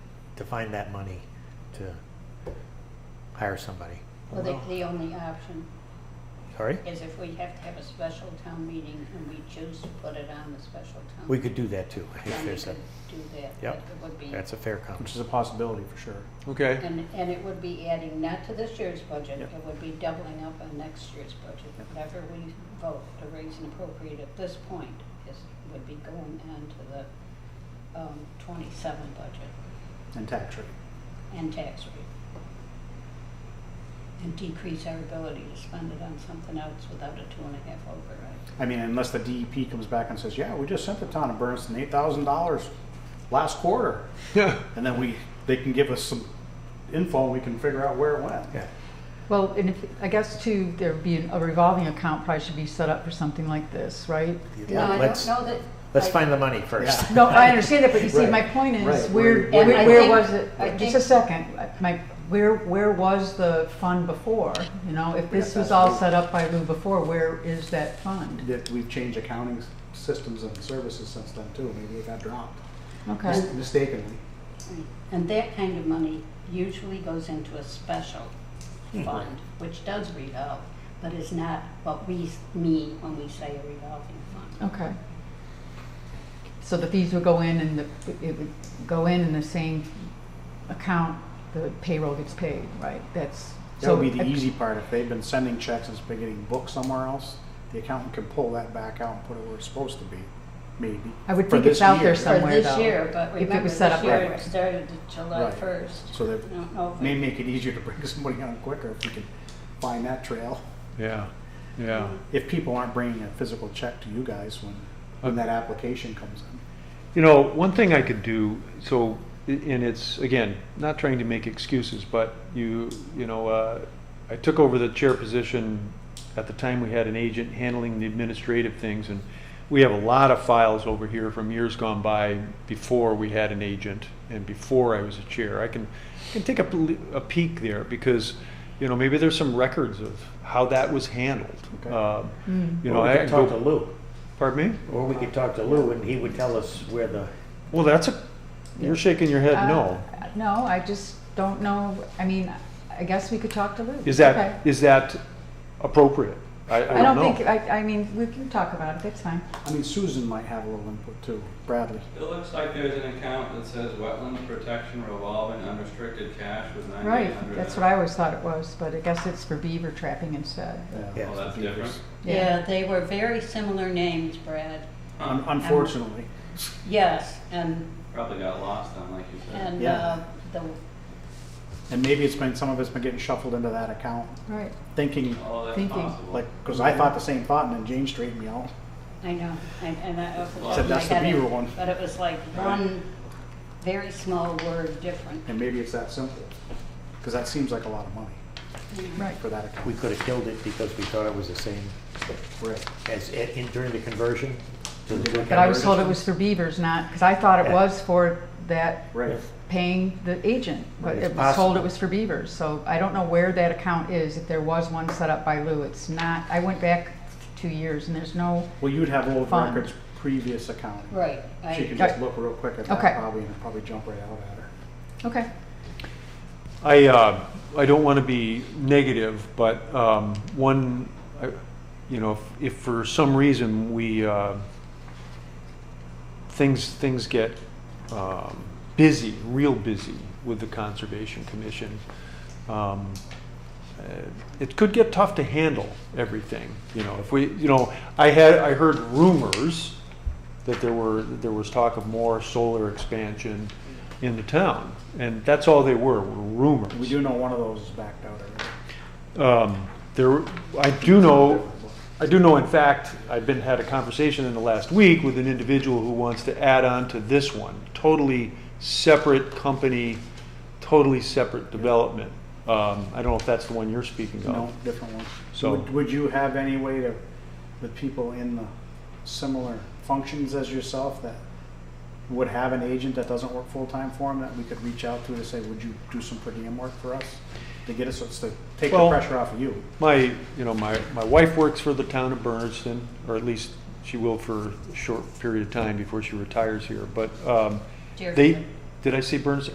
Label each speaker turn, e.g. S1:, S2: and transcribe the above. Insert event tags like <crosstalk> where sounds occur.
S1: to find that money to hire somebody.
S2: Well, the, the only option
S1: Sorry?
S2: is if we have to have a special town meeting and we choose to put it on the special town.
S1: We could do that too, if
S2: Then we
S1: there's a,
S2: could do that.
S1: Yep.
S2: It would be,
S1: that's a fair
S3: which
S1: comment.
S3: is a possibility for sure.
S4: Okay,
S2: and, and it would be adding not to this year's budget,
S3: Yep.
S2: it would be doubling up on next year's budget. Whatever we vote to raise and appropriate at this point is, would be going on to the, um, twenty-seven budget
S3: And tax rate.
S2: and tax rate. And decrease our ability to spend it on something else without a two and a half override.
S3: I mean, unless the DEP comes back and says, yeah, we just sent the town of Berniston eight thousand dollars last quarter. And then we, they can give us some info and we can figure out where it went.
S1: Yeah.
S5: Well, and if, I guess too, there'd be an- a revolving account probably should be set up for something like this, right?
S2: No, I
S1: Let's-
S2: don't know that.
S1: Let's
S2: I-
S1: find the money first.
S5: No, I understand that, but you see, my
S3: Right,
S5: point
S3: right,
S5: is, where,
S2: where- And I
S5: where where
S2: think-
S5: was it,
S2: I
S5: just
S2: think-
S5: a second, my, where, where was the fund before? You know, if this was all set up by Lou before, where is that fund?
S3: That we've changed accounting s- systems and services since then too, maybe it got dropped
S5: Okay,
S3: mis- mistakenly.
S2: And that kind of money usually goes into a special fund, which does revolve, but is not what we s- mean when we say a revolving fund.
S5: okay. So the fees would go in and the, it would go in in the same account the payroll gets paid, right? That's.
S3: That would
S5: so
S3: be the
S5: I-
S3: easy part, if they've been sending checks and it's been getting booked somewhere else, the accountant can pull that back out and put it where it's supposed to be, maybe.
S5: I would
S3: for
S5: think it's
S3: this
S5: out there
S3: year.
S5: some- Somewhere,
S2: For this
S5: though,
S2: year, but
S5: if it
S2: remember,
S5: was set
S2: this
S5: up
S2: year
S5: that way.
S2: it started July
S3: Right.
S2: first.
S3: So
S2: I
S3: that
S2: don't know if
S3: may
S2: it-
S3: make it easier to bring <laughs> somebody on quicker if we can find that trail.
S4: yeah, yeah.
S3: If people aren't bringing a physical check to you guys when, when that application comes in.
S4: You know, one thing I could do, so, i- and it's, again, not trying to make excuses, but you, you know, uh, I took over the chair position at the time we had an agent handling the administrative things, and we have a lot of files over here from years gone by before we had an agent and before I was a chair. I can, I can take a, pl- a peek there because, you know, maybe there's some records of how that was handled.
S3: Okay.
S4: Uh,
S5: Mm.
S4: <laughs> You
S1: Or
S4: know,
S1: we
S4: I
S1: could
S4: can
S1: Talk to
S4: go,
S1: Lou,
S4: pardon me?
S1: or we could talk to Lou and he would tell us where the,
S4: Well, that's a, you're shaking your head
S5: Uh,
S4: no.
S5: No, I just don't know, I mean, I guess we could talk to Lou.
S4: Is
S5: Okay.
S4: that, is that appropriate? I,
S5: I
S4: I
S5: don't
S4: don't
S5: think,
S4: know.
S5: I, I mean, we can talk about it, that's fine.
S3: I mean, Susan might have a little input too, Bradley.
S6: It looks like there's an account that says wetland protection revolving unrestricted cash with ninety-eight
S5: Right,
S6: hundred.
S5: that's what I always thought it was, but I guess it's for beaver trapping instead.
S3: Yeah.
S1: Yeah.
S6: Well, Oh, that's different.
S2: Yeah, they were very similar names, Brad.
S3: Un- Unfortunately,
S2: Yes, and,
S6: Probably got lost on, like you said.
S2: and,
S3: Yeah.
S2: uh, the,
S3: and maybe it's been, some of it's been getting shuffled into that account,
S5: Right,
S3: thinking,
S6: Oh, that's
S5: Thinking.
S6: possible.
S3: like, cause I thought the same thought and then Jane straightened me out.
S2: I know, and, and I. I was-
S3: Said that's the
S2: I got it,
S3: Beaver one.
S2: But it was like one very small word different.
S3: And maybe it's that simple, cause that seems like a lot of money
S5: right.
S3: for that
S1: we
S3: account.
S1: could have killed it because we thought it was the same
S3: Right.
S1: as, in, during the conversion. to the
S5: But I was
S1: conversion.
S5: told it was for beavers, not, because I thought it
S1: Yeah.
S5: was for that,
S3: Right.
S5: paying the agent. But
S1: Right,
S5: it
S1: it's
S5: was told
S1: possible.
S5: it was for beavers, so I don't know where that account is, if there was one set up by Lou. It's not, I went back two years and there's no,
S3: Well, you'd have old
S5: Fund.
S3: records, previous accounting.
S2: Right,
S3: She
S2: I,
S3: can just look real quick at that
S5: Okay.
S3: probably and it'll probably jump right out at her.
S5: okay.
S4: I, uh, I don't want to be negative, but, um, one, I- you know, if- if for some reason we, uh, things, things get, um, busy, real busy with the Conservation Commission, um, uh, it could get tough to handle everything, you know, if we, you know, I had, I heard rumors that there were, that there was talk of more solar expansion in the town, and that's all they were, were rumors.
S3: We do know one of those is backed out already.
S4: Um, there, I do know, I do know, in fact, I've been, had a conversation in the last week with an individual who wants to add on to this one, totally separate company, totally separate development. Um, I don't know if that's the one you're speaking of.
S3: No, different ones.
S4: Oh. So-
S3: Would, would you have any way to, with people in the similar functions as yourself that would have an agent that doesn't work full-time for them that we could reach out to to say, would you do some per diem work for us? To get us, to take the
S4: Well-
S3: pressure off of you.
S4: My, you know, my, my wife works for the town of Bernardston, or at least she will for a short period of time before she retires here, but, um, they,
S2: Deerfield.
S4: did I say Bernardston?